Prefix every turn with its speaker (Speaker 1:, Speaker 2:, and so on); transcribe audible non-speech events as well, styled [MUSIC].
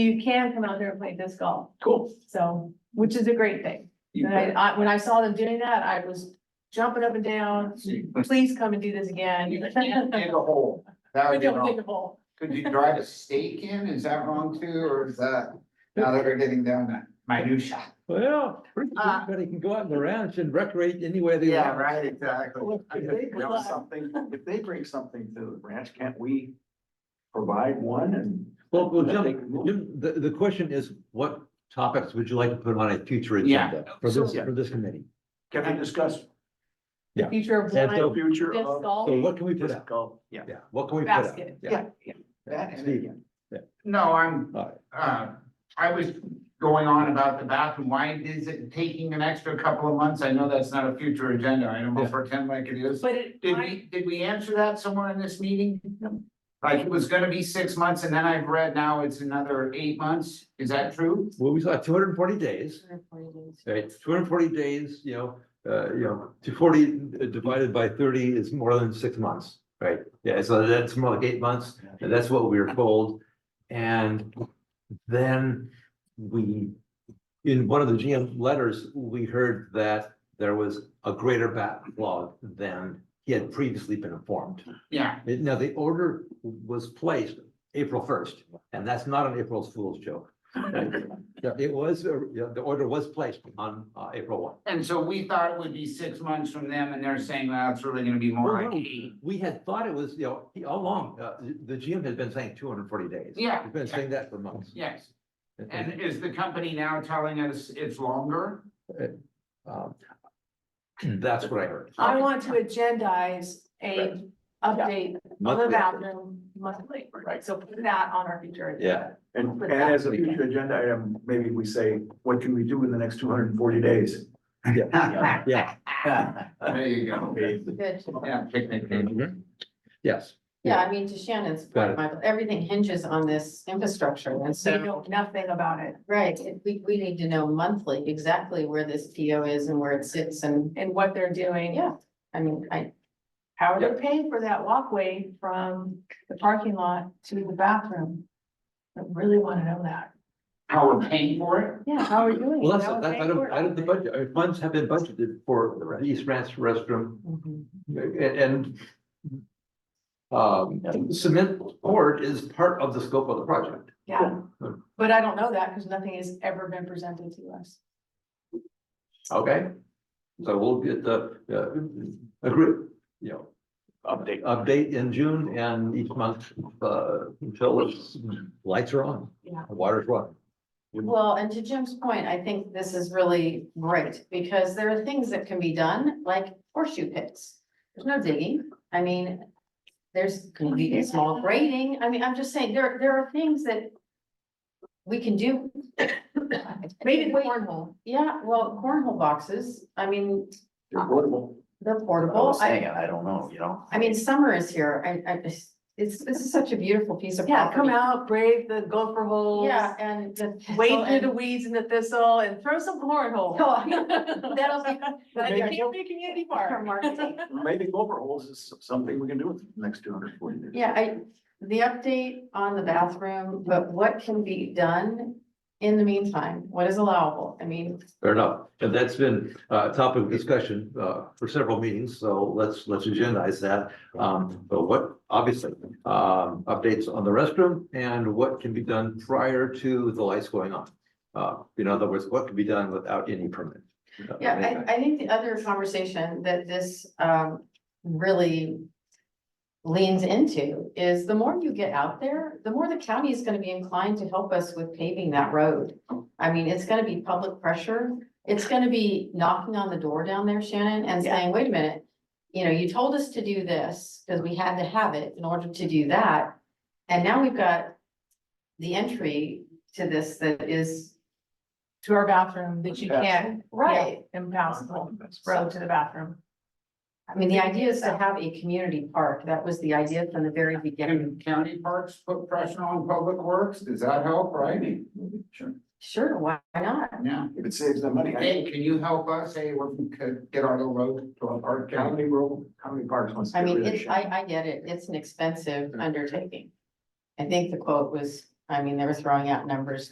Speaker 1: you can come out there and play disc golf,
Speaker 2: Cool.
Speaker 1: so, which is a great thing.
Speaker 2: You
Speaker 1: And I,
Speaker 2: bet.
Speaker 1: I, when I saw them doing that, I was jumping up and down, um,
Speaker 3: [LAUGHS]
Speaker 1: please come and do this again. [LAUGHS]
Speaker 4: You can't dig a hole. That
Speaker 1: We
Speaker 4: would be
Speaker 1: don't dig
Speaker 4: wrong.
Speaker 1: a hole.
Speaker 4: Could you drive a stake in? Is that wrong too? Or is that, now that we're getting down to minutia?
Speaker 2: Well,
Speaker 1: Uh,
Speaker 2: everybody can go out in the ranch and recreate anywhere they
Speaker 4: Yeah,
Speaker 2: want.
Speaker 4: right, exactly.
Speaker 3: If they bring something, if they bring something to the ranch, can't we provide one and?
Speaker 5: Well, well,
Speaker 3: Then they
Speaker 5: Jim,
Speaker 3: can move.
Speaker 5: Jim, the, the question is, what topics would you like to put on a future
Speaker 4: Yeah.
Speaker 5: agenda for this,
Speaker 3: So-
Speaker 5: for this committee?
Speaker 3: Can we discuss
Speaker 1: Future of
Speaker 5: And
Speaker 3: the
Speaker 1: blind
Speaker 3: future
Speaker 1: disc
Speaker 3: of?
Speaker 5: So
Speaker 1: golf
Speaker 5: what can we put out?
Speaker 3: Go, yeah.
Speaker 5: Yeah, what can we put out?
Speaker 1: basket.
Speaker 5: Yeah,
Speaker 3: That and
Speaker 5: Steve.
Speaker 3: again.
Speaker 4: No, I'm,
Speaker 5: all right.
Speaker 4: uh, I was going on about the bathroom, why is it taking an extra couple of months? I know that's not a future agenda item,
Speaker 5: Yeah.
Speaker 4: but pretend like it is.
Speaker 1: But it,
Speaker 4: Did
Speaker 1: I,
Speaker 4: we, did we answer that somewhere in this meeting? Like, it was gonna be six months, and then I've read now it's another eight months, is that true?
Speaker 5: Well, we saw two hundred and forty days, right? Two hundred and forty days, you know, uh, you know, two forty divided by thirty is more than six months, right? Yeah, so that's more like eight months, and that's what we were told. And then we, in one of the GM letters, we heard that there was a greater backlog than he had previously been informed.
Speaker 4: Yeah,
Speaker 5: Now, the order was placed April first, and that's not an April Fool's joke. It was, uh, yeah, the order was placed on uh, April one.
Speaker 4: and so we thought it would be six months from them, and they're saying, well, it's really gonna be more
Speaker 5: Well,
Speaker 4: like
Speaker 5: no,
Speaker 4: eight.
Speaker 5: We had thought it was, you know, he- all along, uh, the GM had been saying two hundred and forty days.
Speaker 4: Yeah,
Speaker 5: He's been saying that for months.
Speaker 4: Yes,
Speaker 5: And,
Speaker 4: and is the company now telling us it's longer?
Speaker 5: um, [CLEARS THROAT] That's what I heard.
Speaker 1: I want to agendize a update of the
Speaker 5: Monthly.
Speaker 1: bathroom monthly, right? So put that on our future. agenda.
Speaker 5: Yeah.
Speaker 3: And, and as a future agenda item, maybe we say, what can we do in the next two hundred and forty days? [LAUGHS]
Speaker 5: Yeah. Yeah.
Speaker 4: There you go.
Speaker 6: Good.
Speaker 4: Yeah, picnic table.
Speaker 5: Yes,
Speaker 6: Yeah, I mean, to Shannon's
Speaker 5: Got it.
Speaker 6: point, Michael, everything hinges on this infrastructure and
Speaker 1: So you
Speaker 6: so,
Speaker 1: know nothing about it
Speaker 6: right, it- we, we need to know monthly exactly where this PO is and where it sits and,
Speaker 1: and what they're doing.
Speaker 6: yeah. I mean, I,
Speaker 1: How are they paying for that walkway from the parking lot to the bathroom? I really want to know that.
Speaker 4: How we're paying for it?
Speaker 1: Yeah, how are you doing?
Speaker 5: well, that's,
Speaker 1: How are
Speaker 5: that's
Speaker 1: they
Speaker 5: out of,
Speaker 1: doing it?
Speaker 5: out of the budget, I mean, funds have been budgeted for the East Ranch restroom uh,
Speaker 6: Mhm.
Speaker 5: a- and um, cement board is part of the scope of the project.
Speaker 1: Yeah, but I don't know that because nothing has ever been presented to us.
Speaker 5: Okay? So we'll get the, uh, a group, you know,
Speaker 3: Update.
Speaker 5: update in June and each month, uh, until it's, lights are on.
Speaker 1: Yeah.
Speaker 5: Water's running.
Speaker 6: Well, and to Jim's point, I think this is really great because there are things that can be done, like horseshoe pits. There's no digging. I mean, there's gonna be a small grading. I mean, I'm just saying, there, there are things that we can do.
Speaker 1: Maybe the
Speaker 6: Wait.
Speaker 1: cornhole.
Speaker 6: Yeah, well, cornhole boxes, I mean,
Speaker 3: They're portable.
Speaker 6: they're
Speaker 3: I
Speaker 6: portable.
Speaker 3: was saying,
Speaker 6: I,
Speaker 3: I don't know, you know?
Speaker 6: I mean, summer is here. I, I, it's, this is such a beautiful piece of
Speaker 1: Yeah, come
Speaker 6: property.
Speaker 1: out, brave the gopher holes.
Speaker 6: Yeah, and the.
Speaker 1: Wade through the weeds and the thistle and throw some cornhole. [LAUGHS]
Speaker 6: [LAUGHS] That'll be.
Speaker 1: Like a
Speaker 3: Maybe-
Speaker 1: big community
Speaker 6: For
Speaker 1: park.
Speaker 6: marketing.
Speaker 3: Maybe over holes is something we can do with the next two hundred and forty days.
Speaker 6: Yeah, I, the update on the bathroom, but what can be done in the meantime? What is allowable? I mean,
Speaker 5: Fair enough. And that's been uh, a topic of discussion uh, for several meetings, so let's, let's agendize that. Um, But what, obviously, um, updates on the restroom and what can be done prior to the lights going on. Uh, In other words, what can be done without any permit.
Speaker 6: yeah, I, I think the other conversation that this, um, really leans into is the more you get out there, the more the county is gonna be inclined to help us with paving that road. I mean, it's gonna be public pressure. It's gonna be knocking on the door down there, Shannon, and
Speaker 1: Yeah.
Speaker 6: saying, wait a minute. You know, you told us to do this because we had to have it in order to do that. And now we've got the entry to this that is,
Speaker 1: To our bathroom that you can't.
Speaker 6: right,
Speaker 1: Yeah, Impassable road to the bathroom.
Speaker 6: I mean, the idea is to have a community park. That was the idea from the very beginning.
Speaker 4: Can county parks put pressure on public works? Does that help, right?
Speaker 3: Sure.
Speaker 6: Sure, why not?
Speaker 4: Yeah.
Speaker 3: If it saves them money, I,
Speaker 4: Hey, can you help us? Hey, we could get on the road to our park
Speaker 3: how
Speaker 4: county.
Speaker 3: many rural, how many parks wants to
Speaker 6: I
Speaker 3: get
Speaker 6: mean,
Speaker 3: rid of
Speaker 6: it's,
Speaker 3: shit?
Speaker 6: I, I get it. It's an expensive undertaking. I think the quote was, I mean, they were throwing out numbers